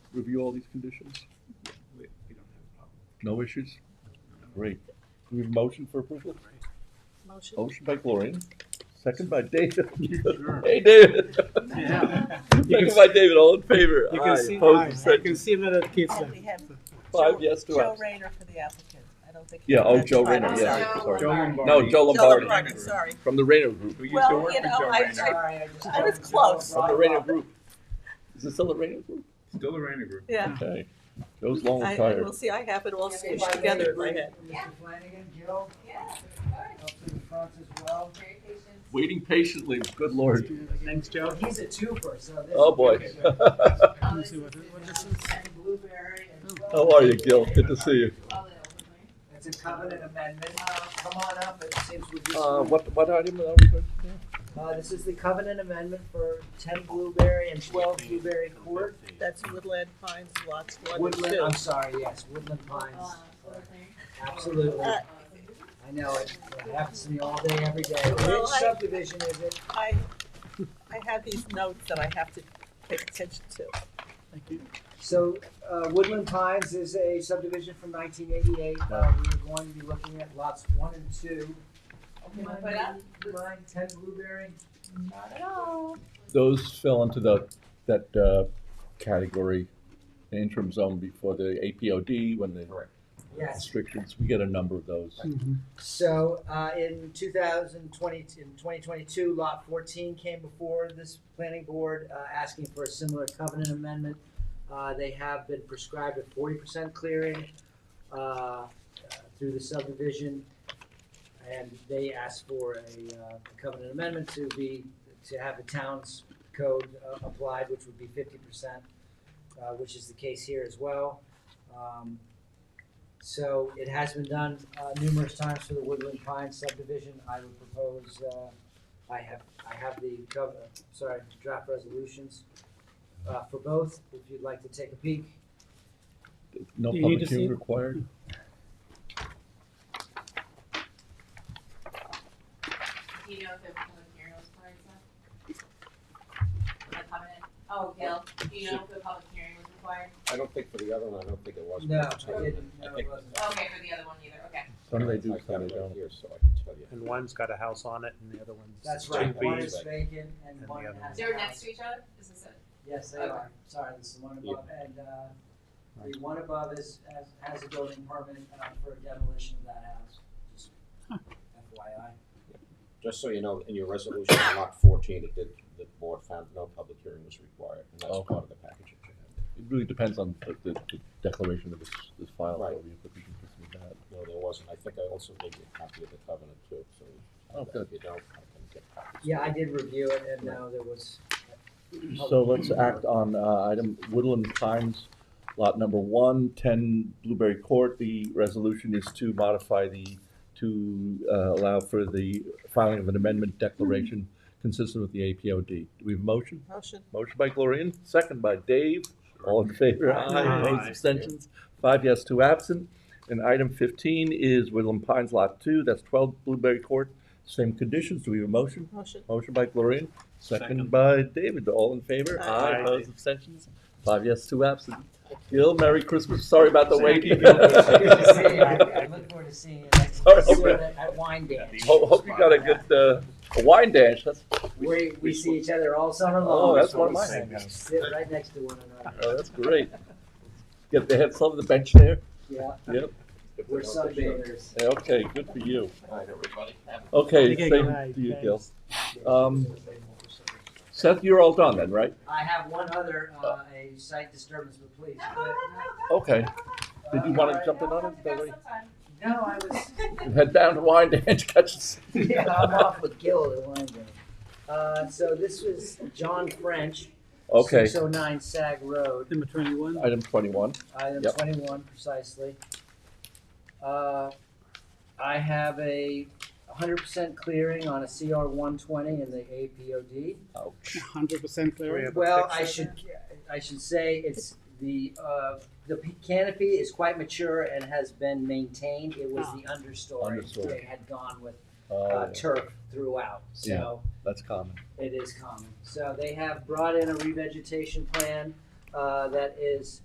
review all these conditions? We, we don't have a problem. No issues? Great. Do we have a motion for approval? Motion. Motion by Gloria, second by David. Sure. Hey, David. Yeah. Second by David, all in favor? You Aye, can see, opposed, you abstentions. can see him at kids. And Oh, we have Five Joe- yes to Joe us. Rayner for the applicant. I don't think. he- Yeah, oh, that's Joe fine. Rayner, I'm sorry. yeah, sorry. Joe No, Joe Joe Lombardi, Lombardi, sorry. from the Reno Group. We used to Well, work you with know, Joe I, Rayner. I, I was close. From the Reno Group. Is it still the Reno Group? Still the Rayner Group. Yeah, Okay. Joe's long I, retired. we'll see, I have it all squished together in my head. Mr. Flanagan, Jill, Yeah, up to the front as well. very patient. Waiting patiently, good lord. Thanks, Joe. He's a twofer, so this. Um, Oh, boy. All me this see is what- the what notes and Blueberry and. Oh. How are you, Gil? Good to see you. all that over there. It's a covenant amendment. Uh, Come on up, it seems we just. Uh, what, what item are we going to do? Uh, this is the covenant amendment for ten Blueberry and twelve Blueberry Court. That's Woodland Pines, lots one and Woodland, two. I'm sorry, yes, Woodland Pines. All over there. Absolutely. Uh, I know it. It happens to me all day, every day. Well, Which I- subdivision is it? I, I have these notes that I have to pay attention to. So uh, Woodland Pines is a subdivision from 1988. Uh, We're going to be looking at lots one and two. Okay, I'll put up. Line 10 Blueberry. Not at all. Those fell into the, that, uh, category, the interim zone before the APOD, when the Yes. restrictions, we get a number of those. Hmm. So uh, in 2020, in 2022, Lot 14 came before this planning board uh, asking for a similar covenant amendment. Uh, They have been prescribed a 40% clearing uh, uh, through the subdivision. And they asked for a uh, covenant amendment to be, to have the town's code uh, applied, which would be 50%, uh, which is the case here as well. Um, so it has been done uh, numerous times for the Woodland Pines subdivision. I would propose, uh, I have, I have the, gov- uh, sorry, draft resolutions uh, for both, if you'd like to take a peek. No Do you need public to hearing see- required? Do you know if the public hearing was required, Seth? For the covenant? Oh, Gil, do you know if the public hearing was required? I don't think for the other one, I don't think it was. No, I didn't, no, I it think- wasn't. Okay, for the other one either, okay. Some they do, I've got some it they right don't. here, so I can tell you. And one's got a house on it and the other one's. That's two right, Two one Bs. is Bs. vacant and And one the has. other a one. They're house. next to each other? Is this it? Yes, they Okay. are, sorry, this is the one Yeah. above, and, uh, the one above is, has, has a building permit uh, for demolition of that house, just FYI. Just so you know, in your resolution, on lot fourteen, it did, the board found no public hearing was required, and that's Okay. part of the package. that you had. It really depends on the, the the declaration that was, this file, so Right. we have to be consistent with that. No, there wasn't. I think I also gave you a copy of the covenant too, so. Oh, good. If you don't, I can get copies. Yeah, I did review it, and no, there was. So let's act on uh, item Woodland Pines, lot number one, ten Blueberry Court. The resolution is to modify the, to uh, allow for the filing of an amendment declaration consistent with the APOD. Do we have a motion? Motion. Motion by Gloria, second by Dave. All in favor? Aye. Aye. Opposed, abstentions? Five yes, two absent. And item fifteen is Woodland Pines Lot Two, that's twelve Blueberry Court. Same conditions. Do we have a motion? Motion. Motion by Gloria, second Second. by David, all in favor? Aye. Aye, Aye. opposed, abstentions? Five yes, two absent. Gil, Merry Christmas, sorry about the Thank wait. you, Gil. Good to see you. I I look forward to seeing you next Sorry. see you at at Wine Dance. Ho- Oh, Hope you got a good, uh, a wine dash, that's, We, we see each other all summer long. oh, that's one of my hangouts. Sit right next to one another, Oh, that's great. Yeah, they had some of the bench there? yeah, Yep, If they we're don't, they should. sunbathers. Yeah, okay, good for you. All right, everybody. Have a- Okay, Okay, same good night, to you, Gil. thanks. Um, Seth, you're all done then, right? I have one other, uh, a site disturbance, but please. No, go but- uh, ahead, no, go. Okay, did you wanna Alright. jump in No, on come it? That back way? sometime. No, I was, Head down to wine dash, catch us. yeah, I'm off with Gil at Wine Dance. Uh, so this was John French. Okay, Six oh nine Sag Road. Number twenty-one. item twenty-one, Item Yep. twenty-one precisely. Uh, I have a hundred percent clearing on a CR one twenty in the APOD. ouch. Hundred percent We clear. have a Well, fix I it. should, I should say it's the, uh, the p- canopy is quite mature and has been maintained. It was the understory. Understory. They had gone with, uh, Oh, turf throughout, so. that's common. It is common. So they have brought in a revegetation plan uh, that is